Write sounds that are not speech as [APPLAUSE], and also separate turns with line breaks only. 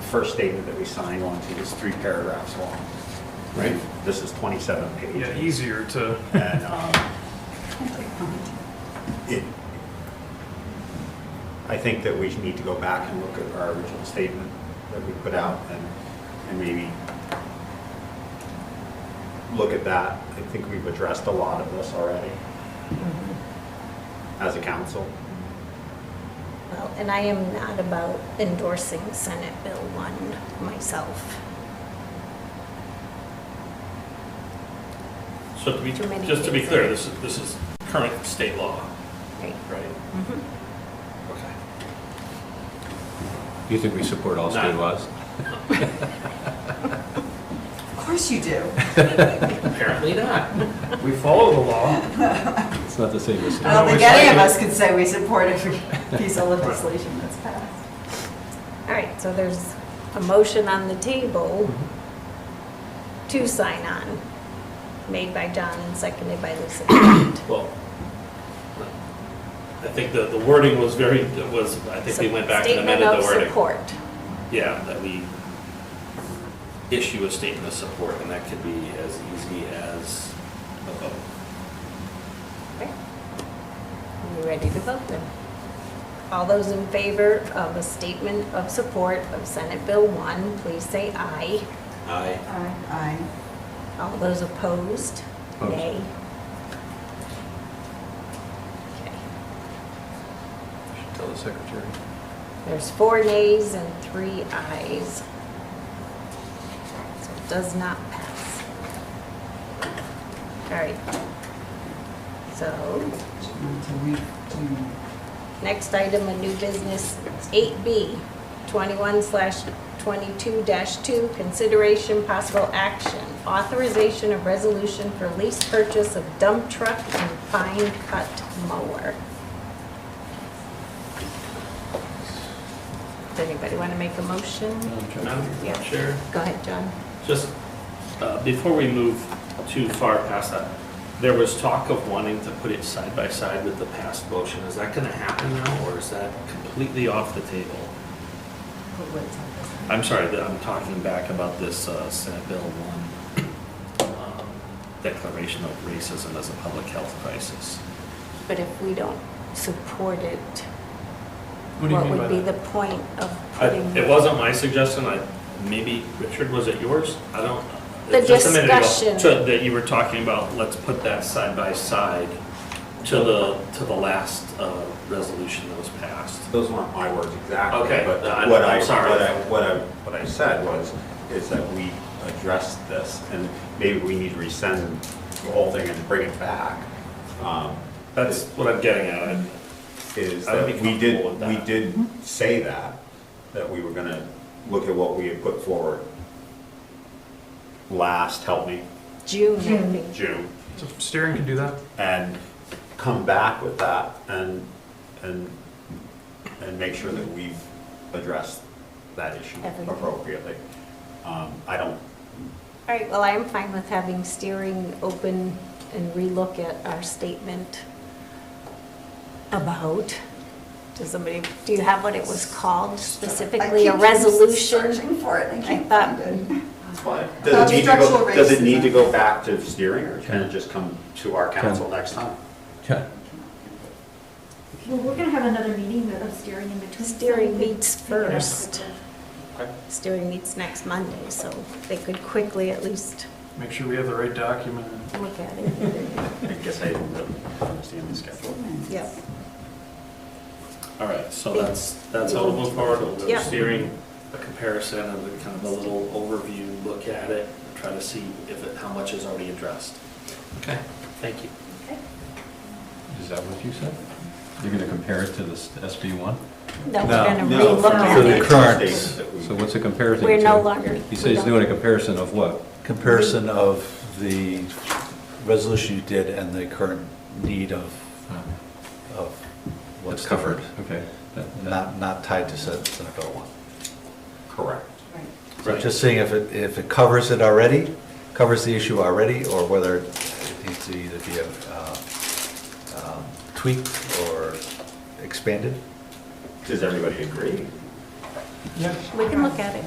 first statement that we signed on to is three paragraphs long.
right?
This is 27 pages.
Yeah, easier to,
And um, it, I think that we need to go back and look at our original statement that we put out and, and maybe look at that. I think we've addressed a lot of this already as a council.
Well, and I am not about endorsing Senate Bill 1 myself.
So to be,
Too many
just to be
things
clear,
in it.
this is, this is current state law,
Right.
right?
Mm-hmm.
Okay.
You think we support all state
No.
laws?
Of course you do.
Apparently not.
we follow the law.
It's not the same as.
I don't
No,
think
it's
any of
like-
us could say we support [LAUGHS] every piece of legislation that's passed.
All right, so there's a motion on the table
Mm-hmm.
to sign on, made by John and seconded by
[COUGHS]
Lisa.
Well, I think the, the wording was very, was, I think they went back and amended the
Statement of
wording.
support.
Yeah, that we issue a statement of support, and that could be as easy as a vote.
Okay. Are you ready to vote then? All those in favor of a statement of support of Senate Bill 1, please say aye.
Aye.
Aye.
All those opposed,
Opposed.
nay. Okay.
Should Tell the secretary.
There's four nays and three ayes. So it does not pass. All right. So, next item, a new business, 8B, 21 slash 22 dash 2, consideration possible action, authorization of resolution for lease purchase of dump truck and fine cut mower. Does anybody want to make a motion? Yeah.
Madam Chair?
Go ahead, John.
Just, uh, before we move too far past that, there was talk of wanting to put it side by side with the past motion. Is that gonna happen now, or is that completely off the table? I'm sorry, that I'm talking back about this uh, Senate Bill 1 um, declaration of racism as a public health crisis.
But if we don't support it,
What do you
what
mean by
would be
that?
the point of
I-
putting?
It wasn't my suggestion, I, maybe, Richard, was it yours? I don't.
The
just a minute ago,
discussion.
so That you were talking about, let's put that side by side to the, to the last uh, resolution that was passed.
Those weren't my words exactly.
Okay,
But
I'm-
what I,
I'm sorry.
what I, what I, what I said was, is that we addressed this, and maybe we need to rescind the whole thing and bring it back. Um,
That's what I'm getting at. I-
Is
I would
that
be
we
comfortable
did,
with
we
that.
did say that, that we were gonna look at what we had put forward last, help me,
June, I think.
June,
So Steering can do that?
and come back with that and, and, and make sure that we've addressed that issue
Everything.
appropriately. Um, I don't,
All right, well, I am fine with having steering open and relook at our statement about, does somebody, do you have what it was called specifically? A resolution?
Searching for it and
I
can't
thought-
find it.
Uh-huh.
does it need to go,
Structural
does it need
racism.
to go back to steering or can it just come to our council next time?
Yeah.
Well, we're gonna have another meeting of steering in between.
Steering meets first.
Okay.
Steering meets next Monday, so they could quickly at least
Make sure we have the right document.
look at it.
I guess I didn't really understand the schedule.
Yep.
All right, so that's, that's how we'll move forward. We'll do
Yeah.
steering, a comparison, and then kind of a little overview, look at it, try to see if it, how much is already addressed. Okay. Thank you.
Is that what you said? You're gonna compare it to this SB one?
No, we're
No,
gonna
Um, no,
relook
for
at
the
it.
current.
So what's it compared to?
We're no longer.
He says he's
we don't-
doing a comparison of what?
comparison of the resolution you did and the current need of, of what's
What's
covered.
Hmm. Okay. That- that-
Not, not tied to Sen- Senate Bill 1.
Correct.
Right.
So just seeing if it, if it covers it already, covers the issue already, or whether it needs to either be uh, um, tweaked or expanded.
Does everybody agree?
Yeah.
We can look at it.